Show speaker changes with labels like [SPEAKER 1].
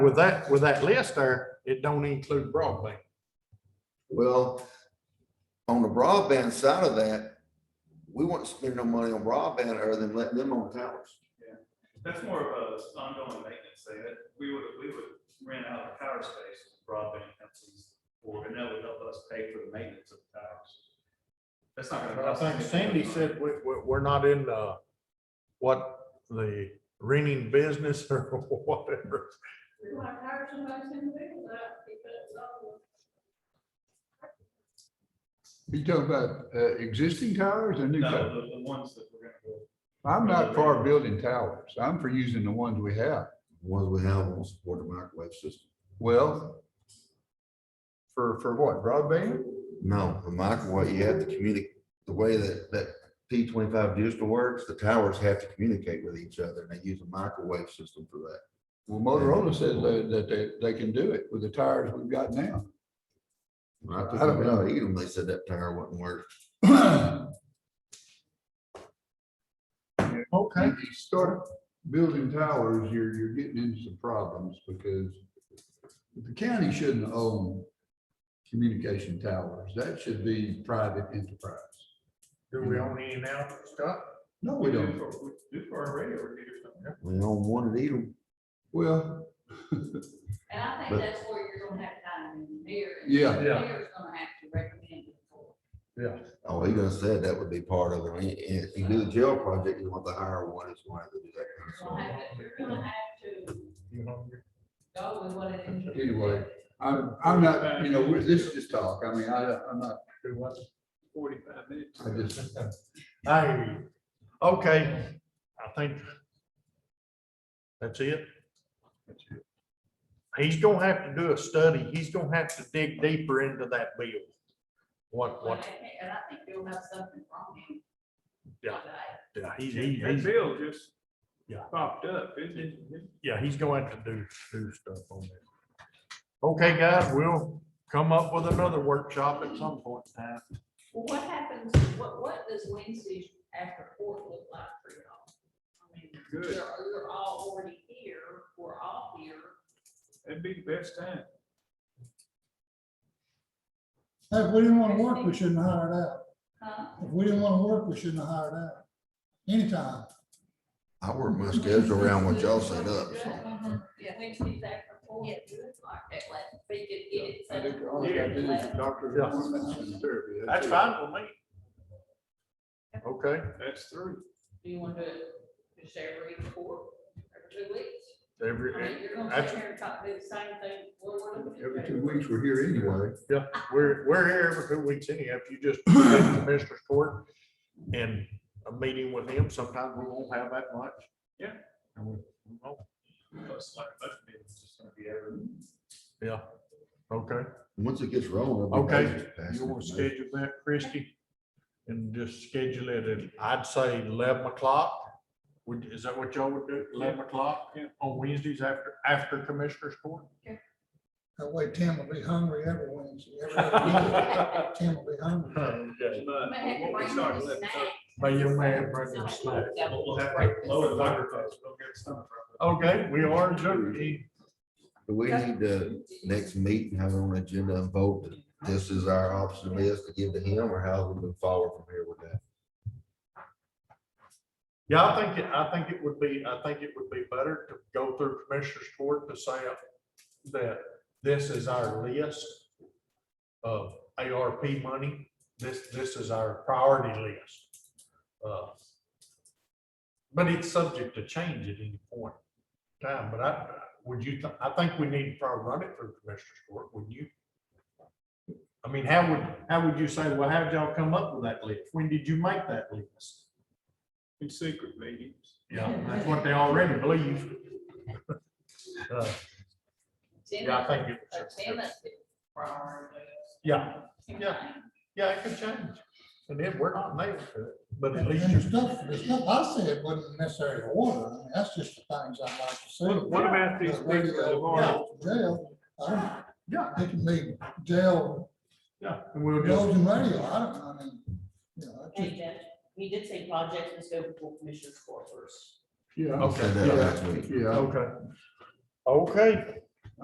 [SPEAKER 1] With that, with that list there, it don't include broadband.
[SPEAKER 2] Well, on the broadband side of that, we wouldn't spend no money on broadband other than letting them on towers.
[SPEAKER 3] That's more of a ongoing maintenance thing, that we would, we would rent out our power space to broadband companies, or, and that would help us pay for the maintenance of the towers. That's not gonna.
[SPEAKER 1] I
[SPEAKER 3] cost
[SPEAKER 1] think
[SPEAKER 3] us
[SPEAKER 1] Sandy
[SPEAKER 3] any money.
[SPEAKER 1] said, we, we, we're not in, uh, what, the renting business or whatever.
[SPEAKER 4] We want to hire somebody to do that because of
[SPEAKER 5] You talking about uh, existing towers or new
[SPEAKER 3] No,
[SPEAKER 5] towers?
[SPEAKER 3] the, the ones that we're gonna build.
[SPEAKER 5] I'm not for building towers. I'm for using the ones we have.
[SPEAKER 2] Ones we have won't support the microwave system.
[SPEAKER 5] Well, for, for what? Broadband?
[SPEAKER 2] No, the microwave, you have to communicate, the way that, that P twenty-five digital works, the towers have to communicate with each other and they use a microwave system for that.
[SPEAKER 5] Well, Motorola says that, that they, they can do it with the towers we've got now.
[SPEAKER 2] When I took
[SPEAKER 5] I don't
[SPEAKER 2] them
[SPEAKER 5] know.
[SPEAKER 2] out, even they said that tower wouldn't work.
[SPEAKER 5] Okay. If you start building towers, you're, you're getting into some problems because the county shouldn't own communication towers. That should be private enterprise.
[SPEAKER 1] Do we own any now, Scott?
[SPEAKER 5] No, we
[SPEAKER 3] do
[SPEAKER 5] don't.
[SPEAKER 3] for- We do for our radio repeaters, don't we?
[SPEAKER 2] We own one of these.
[SPEAKER 5] Well,
[SPEAKER 4] And I
[SPEAKER 2] But-
[SPEAKER 4] think that's where you're gonna have to find an engineer. and
[SPEAKER 5] Yeah.
[SPEAKER 4] the
[SPEAKER 1] Yeah.
[SPEAKER 4] Mayor's gonna have to recommend it for.
[SPEAKER 2] Oh, he done said that would be part of it. And If you do the jail project, you want to hire one, it's one to do that. kind of
[SPEAKER 4] You're gonna
[SPEAKER 2] stuff.
[SPEAKER 4] have to, you're gonna have to
[SPEAKER 1] You know,
[SPEAKER 4] go with what it is.
[SPEAKER 5] Anyway. I'm, I'm not, you know, we're- this is just talk. I mean, I, I'm not,
[SPEAKER 1] do what?
[SPEAKER 3] Forty-five minutes.
[SPEAKER 5] I just,
[SPEAKER 1] I hear you. Okay, I think that's it. He's gonna have to do a study. He's gonna have to dig deeper into that bill. What,
[SPEAKER 4] But I
[SPEAKER 1] what,
[SPEAKER 4] think- And I think you'll have something from him.
[SPEAKER 1] Yeah.
[SPEAKER 4] today.
[SPEAKER 1] yeah, he's, he's,
[SPEAKER 3] That
[SPEAKER 1] he's-
[SPEAKER 3] bill just
[SPEAKER 1] Yeah.
[SPEAKER 3] popped up, it, it,
[SPEAKER 1] yeah, he's gonna have to do, do stuff on that. Okay, guys, we'll come up with another workshop at some point in time.
[SPEAKER 4] Well, what happens, what, what does Wednesday after court look like for y'all? I mean,
[SPEAKER 3] Good.
[SPEAKER 4] You're, you're all already here, we're all here.
[SPEAKER 3] it'd be the best time.
[SPEAKER 6] Hey, If we didn't want to work, we shouldn't have hired out.
[SPEAKER 4] Huh?
[SPEAKER 6] If we didn't want to work, we shouldn't have hired out. Anytime.
[SPEAKER 2] I work my schedule around what y'all set up, so.
[SPEAKER 4] Yeah, Wednesdays after court, it's like that, like, we could get it.
[SPEAKER 5] I
[SPEAKER 4] set
[SPEAKER 5] think
[SPEAKER 4] up.
[SPEAKER 5] all I gotta do is a doctor's
[SPEAKER 1] Yeah.
[SPEAKER 5] appointments and therapy.
[SPEAKER 1] That's
[SPEAKER 5] it.
[SPEAKER 1] fine with me. Okay,
[SPEAKER 3] That's through.
[SPEAKER 4] Do you want to, just every court, every two weeks?
[SPEAKER 1] every,
[SPEAKER 4] I mean, you're gonna
[SPEAKER 1] that's-
[SPEAKER 4] sit here and talk, do the same thing. we're- we're-
[SPEAKER 5] Every two weeks, we're here anyway.
[SPEAKER 1] Yeah, we're, we're here every two weeks anyhow. If you just go to Commissioner's Court and a meeting with him, sometimes we won't have that much.
[SPEAKER 3] Yeah.
[SPEAKER 1] And we- we won't.
[SPEAKER 3] Plus, like, budget meeting is just gonna be every.
[SPEAKER 1] Yeah, okay.
[SPEAKER 2] Once it gets rolling. it'll be
[SPEAKER 1] Okay.
[SPEAKER 2] nice to pass
[SPEAKER 1] You want to
[SPEAKER 2] information.
[SPEAKER 1] schedule that, Christie? And just schedule it at, I'd say eleven o'clock. Would, is that what y'all would do? Eleven o'clock
[SPEAKER 3] Yeah.
[SPEAKER 1] on Wednesdays after, after Commissioner's Court?
[SPEAKER 6] That way Tim will be hungry every Wednesday. every other
[SPEAKER 1] Yeah.
[SPEAKER 6] week. Tim will be hungry.
[SPEAKER 1] May
[SPEAKER 3] But
[SPEAKER 4] May have to
[SPEAKER 3] what we
[SPEAKER 4] bring
[SPEAKER 3] start
[SPEAKER 4] the
[SPEAKER 3] at 11:30.
[SPEAKER 4] snack.
[SPEAKER 1] you may have brought some snacks.
[SPEAKER 3] We'll we'll have to lower the microphones, we'll get some.
[SPEAKER 1] Okay, we are adjourned.
[SPEAKER 2] Do we need to next meeting, have it on the agenda and vote that this is our option list to give to him or how we move forward from here with that?
[SPEAKER 1] Yeah, I think, it- I think it would be, I think it would be better to go through Commissioner's Court to say that this is our list of ARP money. This, this is our priority list. Uh, But it's subject to change at any point in time, but I, would you, thi- I think we need to probably run it through Commissioner's Court, wouldn't you? I mean, how would, how would you say, well, how'd y'all come up with that list? When did you make that list?
[SPEAKER 3] In secret meetings.
[SPEAKER 1] Yeah, that's what they already believe. Uh, Yeah, I
[SPEAKER 4] uh,
[SPEAKER 1] think it,
[SPEAKER 4] Attendance is priority.
[SPEAKER 1] yeah, yeah, it could change. And then we're not nailed to it, but at
[SPEAKER 6] And
[SPEAKER 1] least
[SPEAKER 6] and the
[SPEAKER 1] you're.
[SPEAKER 6] stuff, the stuff I said wasn't necessarily order. I mean, that's just the things I like to see.
[SPEAKER 3] What- what about these
[SPEAKER 6] The radio,
[SPEAKER 3] things that have already-
[SPEAKER 6] Jail, I
[SPEAKER 1] Yeah,
[SPEAKER 6] don't, it can be jail,
[SPEAKER 1] yeah, and we'll just,
[SPEAKER 6] jails and radio. I don't, I mean, you know, it's just-
[SPEAKER 7] Hey,
[SPEAKER 4] uh,
[SPEAKER 7] Jeff, he did say projects and scope for commissioner's quarters.
[SPEAKER 5] Yeah.
[SPEAKER 1] Okay.
[SPEAKER 2] Send that out next week.
[SPEAKER 5] Yeah.
[SPEAKER 1] okay. Okay,